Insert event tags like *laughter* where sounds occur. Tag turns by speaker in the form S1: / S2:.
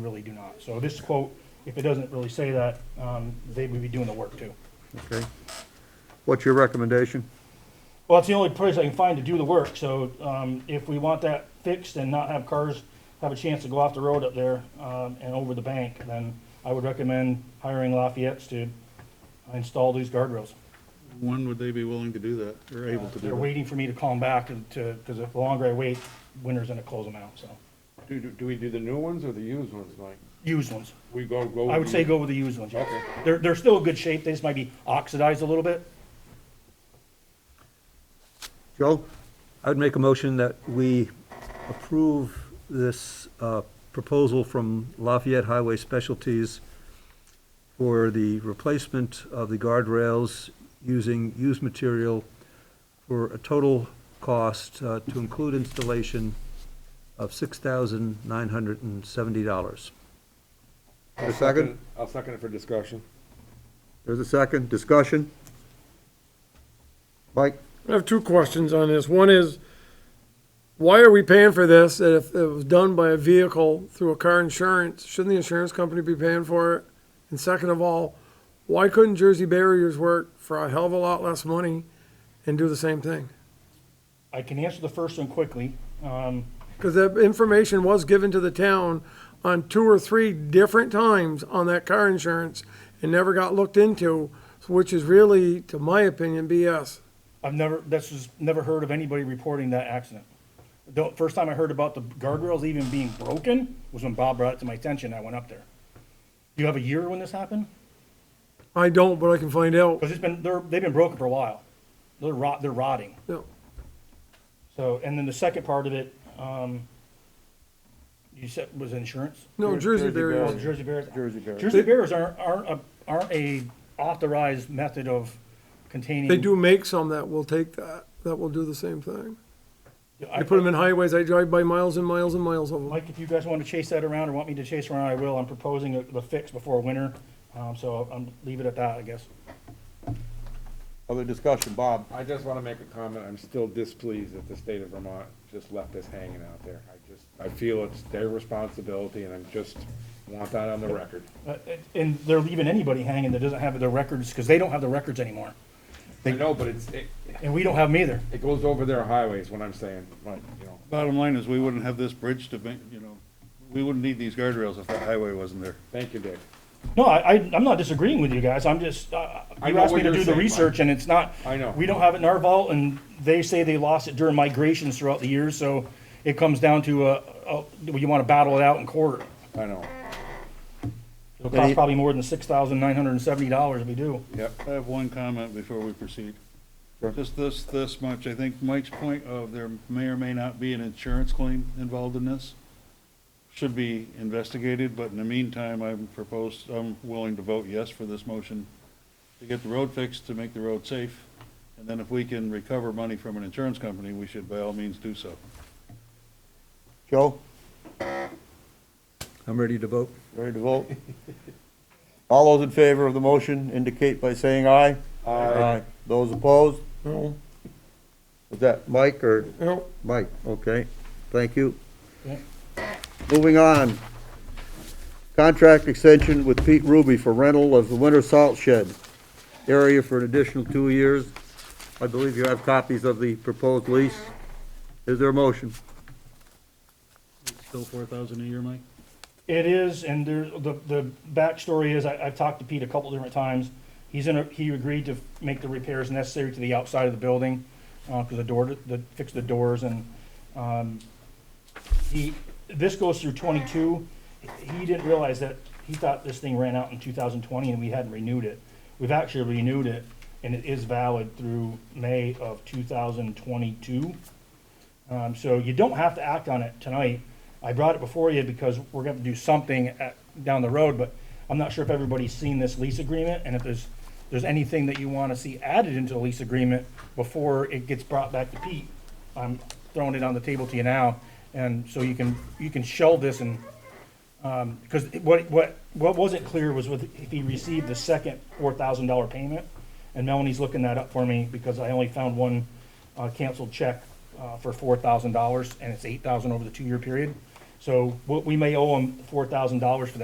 S1: really do not. So this quote, if it doesn't really say that, um, they would be doing the work too.
S2: Okay. What's your recommendation?
S1: Well, it's the only place I can find to do the work, so, um, if we want that fixed and not have cars have a chance to go off the road up there, um, and over the bank, then I would recommend hiring Lafayette's to install these guardrails.
S3: When would they be willing to do that, or able to
S1: They're
S3: do that?
S1: waiting for me to call them back and to, because if the longer I wait, winter's gonna close them out, so.
S4: Do, do, do we do the new ones or the used ones, Mike?
S1: Used ones.
S4: We go, go.
S1: I would
S4: with
S1: say
S4: the-
S1: go with the used ones. yeah.
S4: Okay.
S1: They're, they're still in good shape, they just might be oxidized a little bit.
S2: Joe? I'd make a motion that we approve this uh, proposal from Lafayette Highway Specialties for the replacement of the guardrails using used material for a total cost uh, to include installation of $6,970.
S4: I'll
S2: A second?
S4: it- I'll second it for discussion.
S2: There's a second, discussion? Mike?
S5: I have two questions on this. One is, why are we paying for this? And if it was done by a vehicle through a car insurance, shouldn't the insurance company be paying for it? And second of all, why couldn't Jersey Barriers work for a hell of a lot less money and do the same thing?
S1: I can answer the first one quickly. Um,
S5: Because that information was given to the town on two or three different times on that car insurance and never got looked into, which is really, to my opinion, BS.
S1: I've never, this is, never heard of anybody reporting that accident. The first time I heard about the guardrails even being broken was when Bob brought it to my attention. I went up there. Do you have a year when this happened?
S5: I don't, but I can find out.
S1: Because it's been, they're, they've been broken for a while. They're rot, they're rotting.
S5: No.
S1: So, and then the second part of it, um, you said was insurance?
S5: No, Jersey
S4: Jersey
S5: Barriers.
S1: Oh, Jersey Bears?
S4: Jersey Bears.
S1: Jersey Bears aren't, aren't, a- aren't a authorized method of containing.
S5: They do make some that will take that, that will do the same thing.
S1: I
S5: They put them in highways, I drive by miles and miles and miles of them.
S1: Mike, if you guys want to chase that around or want me to chase around, I will. I'm proposing a- the fix before winter, um, so I'm, leave it at that, I guess.
S2: Other discussion, Bob?
S4: I just wanna make a comment. I'm still displeased that the state of Vermont just left this hanging out there. I just, I feel it's their responsibility and I'm just, want that on the record.
S1: Uh, And they're leaving anybody hanging that doesn't have their records, because they don't have the records anymore,
S4: I know, but it's, it,
S1: and we don't have them either.
S4: it goes over their highways, what I'm saying, like, you know.
S3: Bottom line is, we wouldn't have this bridge to make, you know, we wouldn't need these guardrails if that highway wasn't there.
S4: Thank you, Dick.
S1: No, I, I- I'm not disagreeing with you guys, I'm just, uh,
S4: I
S1: you
S4: know
S1: asked
S4: what
S1: me to
S4: you're
S1: do the
S4: saying, Mike.
S1: research, and it's not.
S4: I know.
S1: We don't have it in our vault, and they say they lost it during migrations throughout the years, so it comes down to, uh, uh, do you want to battle it out in court?
S4: I know.
S1: It'll cost probably more than six thousand nine hundred and seventy dollars if we do.
S4: Yep.
S3: I have one comment before we proceed. Just this, this much, I think Mike's point of there may or may not be an insurance claim involved in this should be investigated, but in the meantime, I'm proposed, I'm willing to vote yes for this motion to get the road fixed, to make the road safe, and then if we can recover money from an insurance company, we should by all means do so.
S6: Joe,
S2: I'm ready to vote.
S6: ready to vote? *laughs* All those in favor of the motion indicate by saying aye. Aye. Those opposed? No.
S2: Is that Mike or?
S5: No.
S2: Mike, okay, thank you.
S1: Yeah.
S2: Moving on.
S6: Contract extension with Pete Ruby for rental of the winter salt shed area for an additional two years.
S2: I believe you have copies of the proposed lease. Is there a motion?
S3: Still four thousand a year, Mike?
S1: It is, and there, the, the backstory is, I, I've talked to Pete a couple different times. He's in a, he agreed to make the repairs necessary to the outside of the building, uh, cause the door, the, fix the doors and, um, he, this goes through twenty-two. He didn't realize that, he thought this thing ran out in two thousand twenty and we hadn't renewed it. We've actually renewed it and it is valid through May of two thousand twenty-two. Um, so you don't have to act on it tonight. I brought it before you because we're gonna have to do something at, down the road, but I'm not sure if everybody's seen this lease agreement and if there's, there's anything that you wanna see added into the lease agreement before it gets brought back to Pete. I'm throwing it on the table to you now, and so you can, you can shell this and, um 'cause because what, what, what wasn't clear was with, if he received the second four thousand dollar payment. And Melanie's looking that up for me because I only found one, uh, canceled check, uh, for four thousand dollars and it's eight thousand over the two-year period. So what, we may owe them four thousand dollars for that.